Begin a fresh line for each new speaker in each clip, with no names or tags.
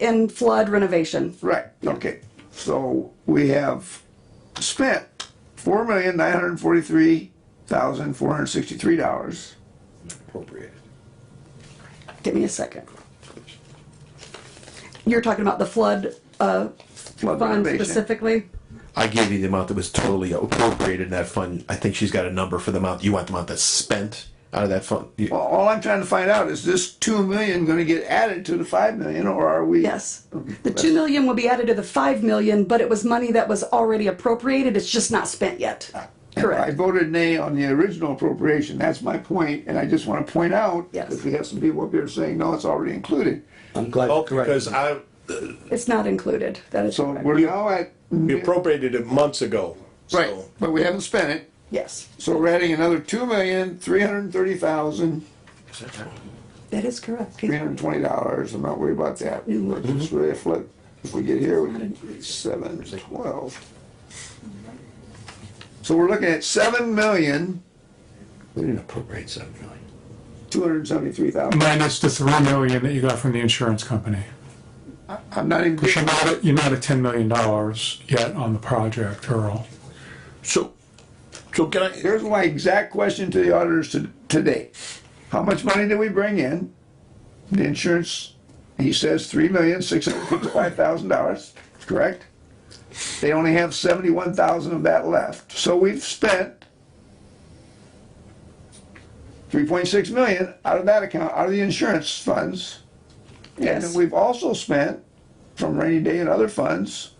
and flood renovation.
Right, okay. So we have spent four million nine hundred and forty-three thousand four hundred and sixty-three dollars.
appropriated.
Give me a second. You're talking about the flood, uh,
Flood
fund
renovation.
specifically?
I gave you the amount that was totally appropriated in that fund. I think she's got a number for the amount, you want the amount that's spent out of that fund? You-
Well, all I'm trying to find out is this two million gonna get added to the five million or are we?
Yes. The two million will be added to the five million, but it was money that was already appropriated, it's just not spent yet.
I
Correct.
voted nay on the original appropriation, that's my point, and I just wanna point out,
Yes.
because we have some people up here saying, no, it's already included.
I'm glad
Oh,
you're correct.
because I,
It's not included, that is
So
correct.
we're now at,
we appropriated it months ago. so-
right, but we haven't spent it,
Yes,
so we're adding another two million three hundred and thirty thousand
that is correct.
three hundred and twenty dollars, I'm not worried about that. It's really a flip. If we get here, we can, seven, twelve. So we're looking at seven million,
We didn't appropriate seven million.
two hundred and seventy-three thousand.
Minus the three million that you got from the insurance company.
I'm not even,
You're not, at- you're not at ten million dollars yet on the project, Earl.
So, so can I,
here's my exact question to the auditors to- today. How much money did we bring in? The insurance, he says three million, six hundred fifty-five thousand dollars, correct? They only have seventy-one thousand of that left, so we've spent three point six million out of that account, out of the insurance funds. And then
Yes.
we've also spent from rainy day and other funds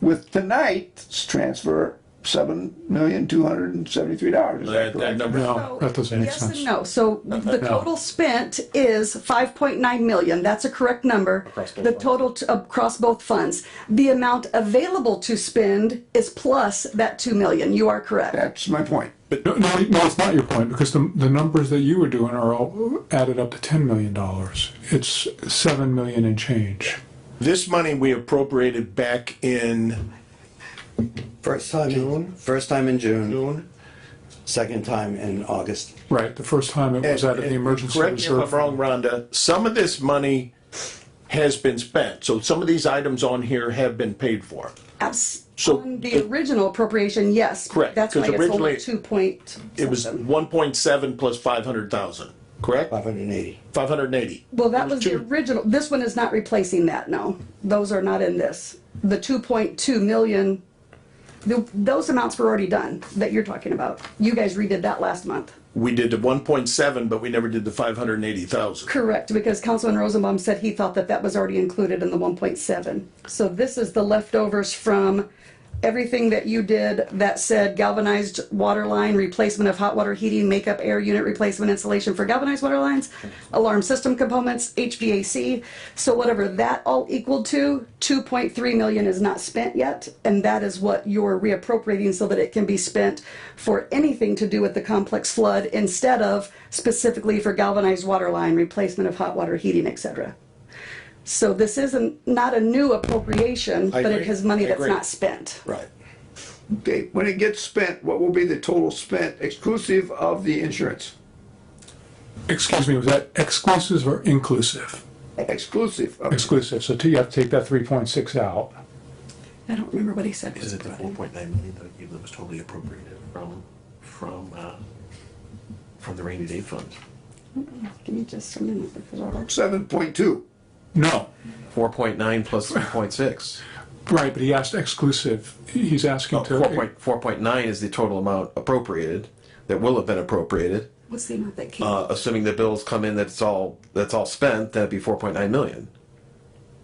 with tonight's transfer, seven million, two hundred and seventy-three dollars.
that, that number,
No, that doesn't make
Yes and
sense.
no. So the total spent is five point nine million. That's a correct number. The total t- across both funds. The amount available to spend is plus that two million. You are correct.
That's my point.
No, no, no, it's not your point, because the, the numbers that you were doing, Earl, added up to ten million dollars. It's seven million and change.
this money we appropriated back in
First time in, first time in June,
June.
second time in August.
Right, the first time it was out of the
And- and
emergency
Correct me if I'm
reserve.
wrong, Rhonda, some of this money has been spent, so some of these items on here have been paid for.
As
So-
on the original appropriation, yes.
Correct,
That's why
'cause
it's only
originally
two point.
It was one point seven plus five hundred thousand, correct?
Five hundred and eighty.
Five hundred and eighty.
Well, that was the original. This one is not replacing that, no. Those are not in this. The two point two million, th- those amounts were already done that you're talking about. You guys redid that last month.
We did the one point seven, but we never did the five hundred and eighty thousand.
Correct, because Councilman Rosenbaum said he thought that that was already included in the one point seven. So this is the leftovers from everything that you did that said galvanized water line, replacement of hot water heating, makeup air unit replacement installation for galvanized water lines, alarm system components, HVAC. So whatever that all equaled to, two point three million is not spent yet, and that is what you're reappropriating so that it can be spent for anything to do with the complex flood instead of specifically for galvanized water line, replacement of hot water heating, et cetera. So this isn't, not a new appropriation, but it
agree.
has money
I
that's
agree.
not spent.
Right.
Okay, when it gets spent, what will be the total spent exclusive of the insurance?
Excuse me, was that exclusive or inclusive?
Exclusive of,
Exclusive, so you have to take that three point six out.
I don't remember what he said.
Is it the four point nine million that I gave that was totally appropriated from, from, uh, from the rainy day fund?
Give me just a minute. because I'll-
seven point two.
No,
Four point nine plus three point six.
right, but he asked exclusive. He's
Oh,
asking
Four
to,
point, four point nine is the total amount appropriated, that will have been appropriated.
What's the amount that came?
Uh, assuming the bills come in, that's all, that's all spent, that'd be four point nine million.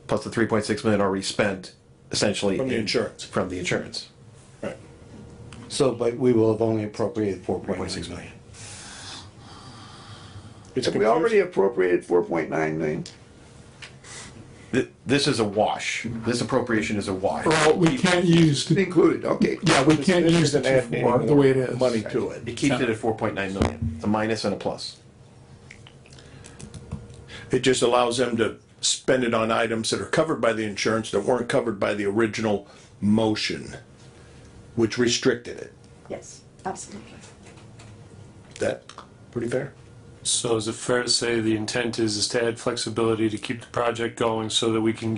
Plus the three point six million already spent, essentially.
From the
in-
insurance.
From the insurance.
Right.
So, but we will have only appropriated four point
Point
nine
six
million.
million.
It's
Have we
confusing.
already appropriated four point nine million?
Th- This is a wash. This appropriation is a wash.
Earl, we can't use the
Included, okay.
Yeah, we can't
This
use the
isn't
two
adding
four
any
the way it
more
is.
Money to it.
It keeps it at four point nine million. It's a minus and a plus.
It just allows them to spend it on items that are covered by the insurance that weren't covered by the original motion, which restricted it.
Yes, absolutely.
That, pretty fair?
So is it fair to say the intent is, is to add flexibility to keep the project going so that we can get